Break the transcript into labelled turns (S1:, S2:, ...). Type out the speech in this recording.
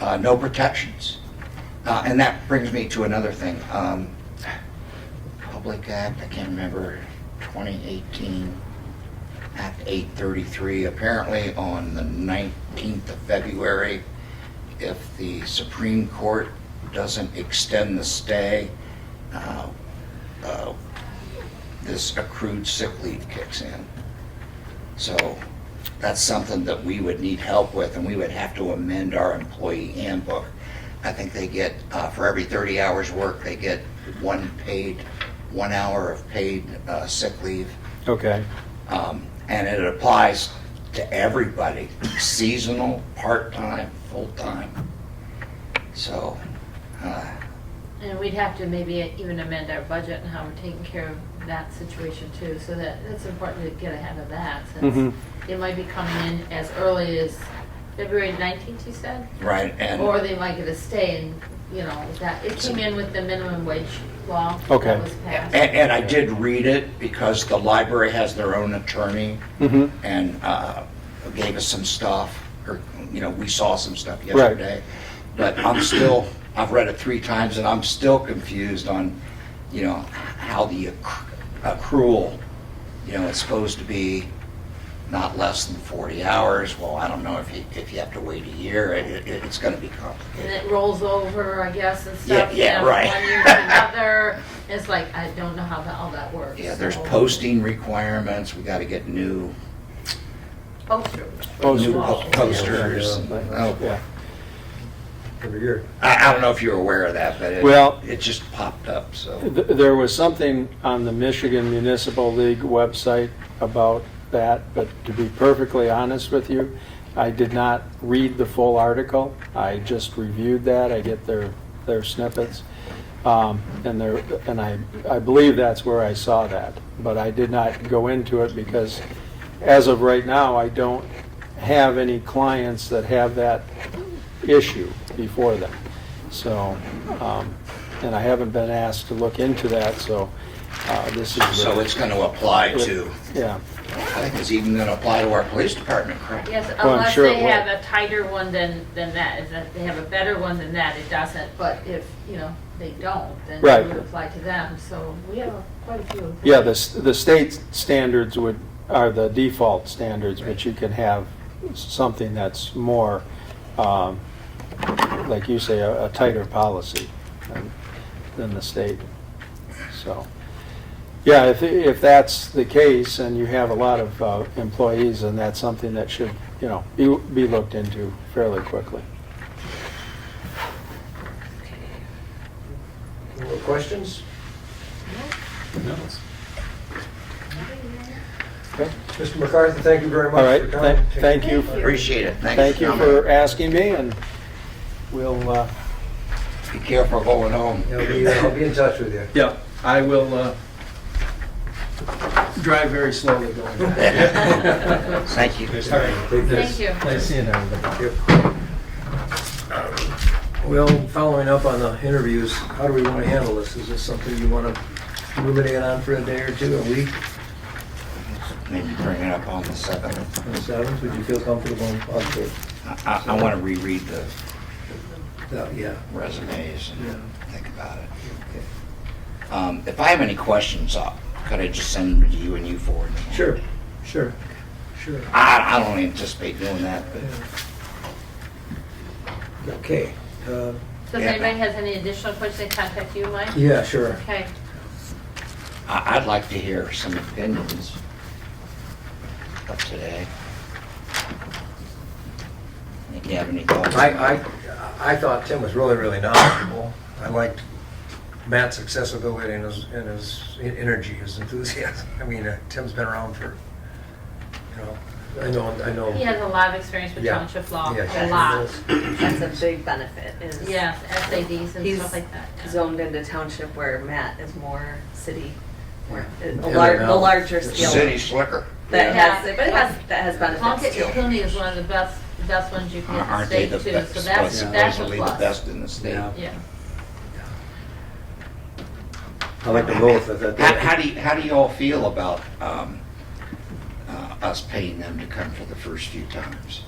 S1: Uh, no protections. Uh, and that brings me to another thing. Um, Public Act, I can't remember, 2018, Act 833, apparently on the 19th of February, if the Supreme Court doesn't extend the stay, uh, uh, this accrued sick leave kicks in. So that's something that we would need help with, and we would have to amend our employee handbook. I think they get, uh, for every 30 hours work, they get one paid, one hour of paid uh, sick leave.
S2: Okay.
S1: Um, And it applies to everybody, seasonal, part-time, full-time. So, uh,
S3: And we'd have to maybe even amend our budget and how we're taking care of that situation too, so that, it's important to get ahead of that,
S2: Mhm.
S3: since
S1: Mm-hmm.
S3: it might be coming in as early as February nineteenth, you said?
S1: right, and.
S3: Or they might get a stay and, you know, that, it came in with the minimum wage law
S2: Okay.
S3: that was passed.
S1: And, and I did read it because the library has their own attorney
S2: hmm
S1: and uh, gave us some stuff, or, you know, we saw some stuff yesterday. But I'm still, I've read it three times and I'm still confused on, you know, how the accru- accrual, you know, it's supposed to be not less than 40 hours. Well, I don't know if you, if you have to wait a year, it, it- it's gonna be
S3: And
S1: complicated.
S3: it rolls over, I guess, and
S1: Yeah,
S3: stuff. you
S1: yeah,
S3: know,
S1: right.
S3: One year to another, it's like, I don't know how that, all that works.
S1: Yeah, there's
S3: so-
S1: posting requirements, we gotta get new
S3: Posters.
S1: new
S2: Posters.
S1: po- posters. Oh,
S2: Yeah.
S4: Every year.
S1: I, I don't know if you're aware of that, but it,
S2: Well-
S1: it just popped up, so.
S2: Th- There was something on the Michigan Municipal League website about that, but to be perfectly honest with you, I did not read the full article. I just reviewed that. I get their, their snippets. Um, And there, and I, I believe that's where I saw that, but I did not go into it because as of right now, I don't have any clients that have that issue before them. So, um, and I haven't been asked to look into that, so uh, this is.
S1: So it's gonna apply to,
S2: Yeah,
S1: I think it's even gonna apply to our police department, correct?
S3: Yes,
S2: I'm
S3: unless
S2: sure it
S3: they
S2: will.
S3: have a tighter one than, than that, if that- they have a better one than that, it doesn't, but if, you know, they don't, then
S2: Right.
S3: it would apply to them, so we have quite a few.
S2: yeah, the, s- the state standards would, are the default standards, but you can have something that's more, um, like you say, a a tighter policy than- than the state, so. Yeah, if, if that's the case and you have a lot of uh, employees, then that's something that should, you know, be, be looked into fairly quickly.
S4: Any more questions?
S2: Okay.
S4: Mr. McCarthy, thank you very
S2: All
S4: much
S2: right,
S4: for coming.
S2: thank, thank you,
S1: Appreciate it, thanks.
S2: thank you
S1: coming.
S2: for asking me, and we'll, uh,
S1: Be careful going home.
S4: I'll be, uh, I'll be in touch with you.
S5: Yeah, I will uh, drive very slowly going back.
S1: Thank you.
S4: All right, take this.
S3: Thank you.
S5: Nice seeing everybody.
S4: Well, following up on the interviews, how do we want to handle this? Is this something you want to ruminate on for a day or two, a week,
S1: Maybe bring it up on the seventh.
S4: on the seventh? Would you feel comfortable on the,
S1: I, I I wanna reread the
S4: that- yeah,
S1: resumes and think about it.
S4: okay.
S1: Um, if I have any questions, uh, could I just send them to you and you forward? them?
S4: Sure, sure, sure.
S1: I, I don't anticipate doing that, but.
S4: Okay, uh,
S3: So
S1: Yeah.
S3: if anybody has any additional questions, they contact you, Mike?
S4: yeah, sure.
S3: Okay,
S1: I- I'd like to hear some opinions of today. Think you have any thoughts?
S4: I, I, I thought Tim was really, really knowledgeable. I liked Matt's accessibility and his, and his energy, his enthusiasm. I mean, uh, Tim's been around for, you know, I know, I know.
S3: he has a lot of experience with
S4: Yeah.
S3: township law,
S4: Yeah,
S3: a
S4: he
S3: lot.
S4: does.
S6: That's a big benefit is
S3: Yes, SADs and
S6: He's
S3: stuff like that. yeah.
S6: zoned into township where Matt is more city, more, a
S4: And
S6: lar-
S4: now-
S6: the larger scale.
S1: City slicker.
S6: That
S3: Yeah.
S6: has, but it has, that has benefits
S3: Plunkett and
S6: too.
S3: Cooney is one of the best, best ones you can get
S1: Aren't they
S3: state
S1: the
S3: too,
S1: best,
S3: so that's, that's a
S1: supposedly the
S3: plus.
S1: best in the state?
S4: Yeah.
S3: Yeah.
S4: I like them both. I thought
S1: How,
S4: they-
S1: how do you, how do you all feel about, um, uh, us paying them to come for the first few times?